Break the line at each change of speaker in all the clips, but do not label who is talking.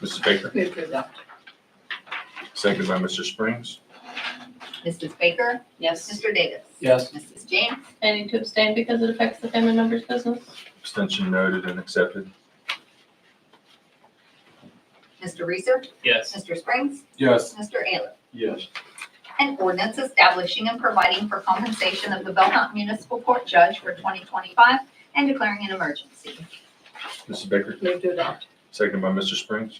Mrs. Baker,
Move to adopt.
second by Mr. Springs.
Mrs. Baker,
Yes.
Mr. Davis.
Yes.
Mrs. James,
I need to abstain because it affects the family member's business.
Abstention noted and accepted.
Mr. Reeser,
Yes.
Mr. Springs,
Yes.
Mr. Ailer.
Yes.
An ordinance establishing and providing for compensation of the Belmont Municipal Court Judge for 2025 and declaring an emergency.
Mrs. Baker,
Move to adopt.
second by Mr. Springs.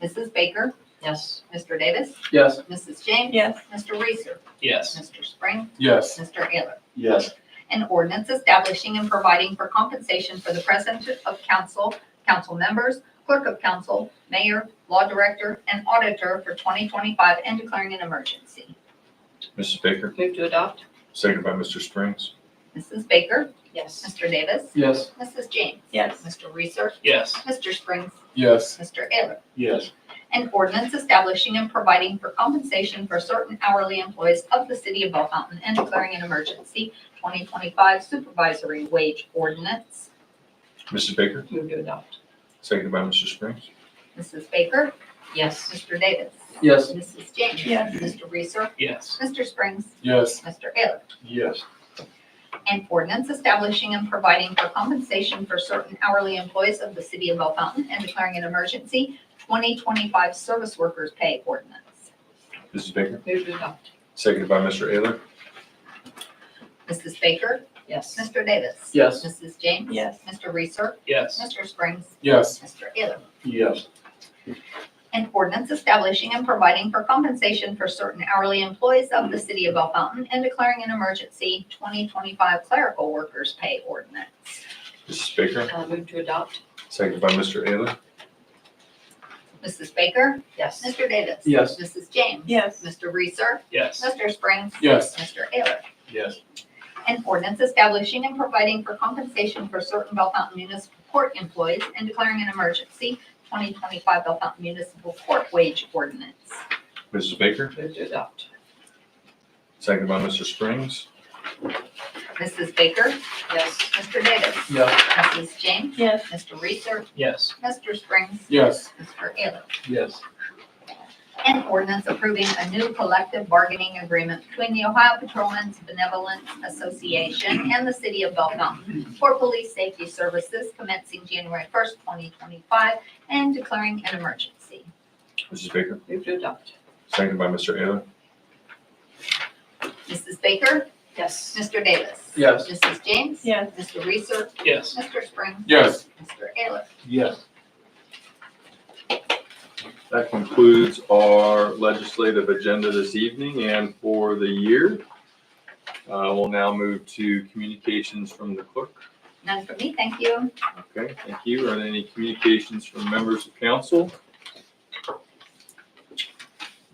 Mrs. Baker,
Yes.
Mr. Davis,
Yes.
Mrs. James.
Yes.
Mr. Reeser,
Yes.
Mr. Springs,
Yes.
Mr. Ailer.
Yes.
An ordinance establishing and providing for compensation for the president of council, council members, clerk of council, mayor, law director, and auditor for 2025 and declaring an emergency.
Mrs. Baker,
Move to adopt.
second by Mr. Springs.
Mrs. Baker,
Yes.
Mr. Davis,
Yes.
Mrs. James.
Yes.
Mr. Reeser,
Yes.
Mr. Springs,
Yes.
Mr. Ailer.
Yes.
An ordinance establishing and providing for compensation for certain hourly employees of the city of Bell Fountain and declaring an emergency. 2025 supervisory wage ordinance.
Mrs. Baker,
Move to adopt.
second by Mr. Springs.
Mrs. Baker,
Yes.
Mr. Davis.
Yes.
Mrs. James.
Yes.
Mr. Reeser.
Yes.
Mr. Springs.
Yes.
Mr. Ailer.
Yes.
An ordinance establishing and providing for compensation for certain hourly employees of the city of Bell Fountain and declaring an emergency. 2025 service workers pay ordinance.
Mrs. Baker,
Move to adopt.
second by Mr. Ailer.
Mrs. Baker,
Yes.
Mr. Davis.
Yes.
Mrs. James.
Yes.
Mr. Reeser.
Yes.
Mr. Springs.
Yes.
Mr. Ailer.
Yes.
An ordinance establishing and providing for compensation for certain hourly employees of the city of Bell Fountain and declaring an emergency 2025 clerical workers pay ordinance.
Mrs. Baker,
Uh, move to adopt.
second by Mr. Ailer.
Mrs. Baker.
Yes.
Mr. Davis.
Yes.
Mrs. James.
Yes.
Mr. Reeser.
Yes.
Mr. Springs.
Yes.
Mr. Ailer.
Yes.
An ordinance establishing and providing for compensation for certain Bell Fountain Municipal Court employees and declaring an emergency 2025 Bell Fountain Municipal Court wage ordinance.
Mrs. Baker,
Move to adopt.
second by Mr. Springs.
Mrs. Baker.
Yes.
Mr. Davis.
Yes.
Mrs. James.
Yes.
Mr. Reeser.
Yes.
Mr. Springs.
Yes.
Mr. Ailer.
Yes.
An ordinance approving a new collective bargaining agreement between the Ohio Patrolmen's Benevolent Association and the City of Bell Fountain for police safety services commencing January first, twenty twenty-five, and declaring an emergency.
Mrs. Baker,
Move to adopt.
second by Mr. Ailer.
Mrs. Baker,
Yes.
Mr. Davis.
Yes.
Mrs. James.
Yes.
Mr. Reeser,
Yes.
Mr. Springs.
Yes.
Mr. Ailer.
Yes.
That concludes our legislative agenda this evening and for the year. Uh, We'll now move to communications from the clerk.
None for me, thank you.
Okay, thank you. Are there any communications from members of council?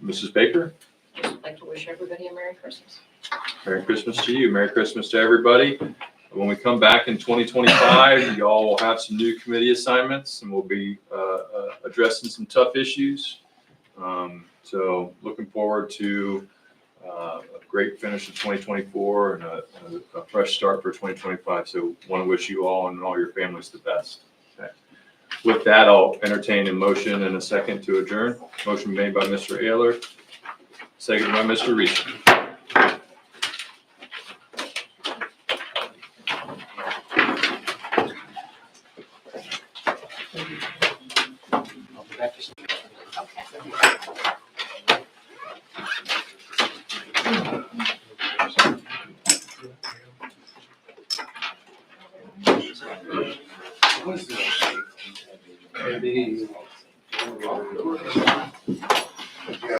Mrs. Baker,
Just like to wish everybody a Merry Christmas.
Merry Christmas to you. Merry Christmas to everybody. When we come back in 2025, y'all will have some new committee assignments and we'll be uh, uh, addressing some tough issues. Um, So looking forward to uh, a great finish of 2024 and a- a a fresh start for 2025. So want to wish you all and all your families the best. Okay. With that, I'll entertain a motion and a second to adjourn. Motion made by Mr. Ayler, second by Mr. Reese.
Okay.
Maybe.